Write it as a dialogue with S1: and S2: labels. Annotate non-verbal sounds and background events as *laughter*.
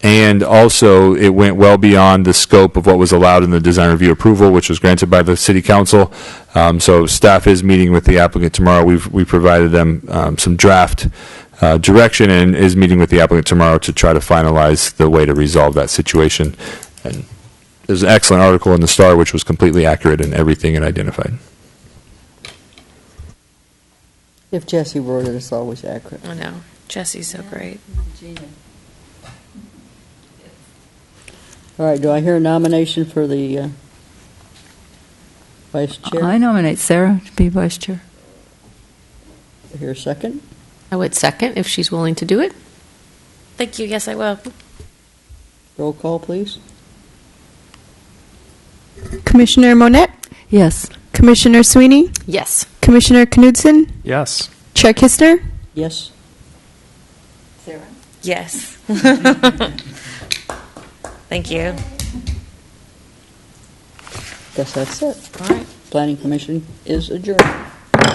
S1: And also, it went well beyond the scope of what was allowed in the design review approval, which was granted by the city council. Um, So staff is meeting with the applicant tomorrow. We've, we provided them um, some draft uh, direction and is meeting with the applicant tomorrow to try to finalize the way to resolve that situation. And there's an excellent article in the Star which was completely accurate in everything it identified.
S2: If Jesse wrote it, it's always accurate.
S3: I know. Jesse's so great.
S2: All right, do I hear a nomination for the uh, vice
S4: I
S2: chair?
S4: nominate Sarah to be vice chair.
S2: Here, second?
S5: I would second if she's willing to do it.
S3: Thank you. Yes, I will.
S2: Roll call, please.
S6: Commissioner Monette,
S4: Yes.
S6: Commissioner Sweeney,
S5: Yes.
S6: Commissioner Knudsen,
S7: Yes.
S6: Chair Kistner,
S2: Yes?
S3: Yes. *laughs* Thank you.
S2: Guess that's it.
S5: All right.
S2: Planning Commission is adjourned.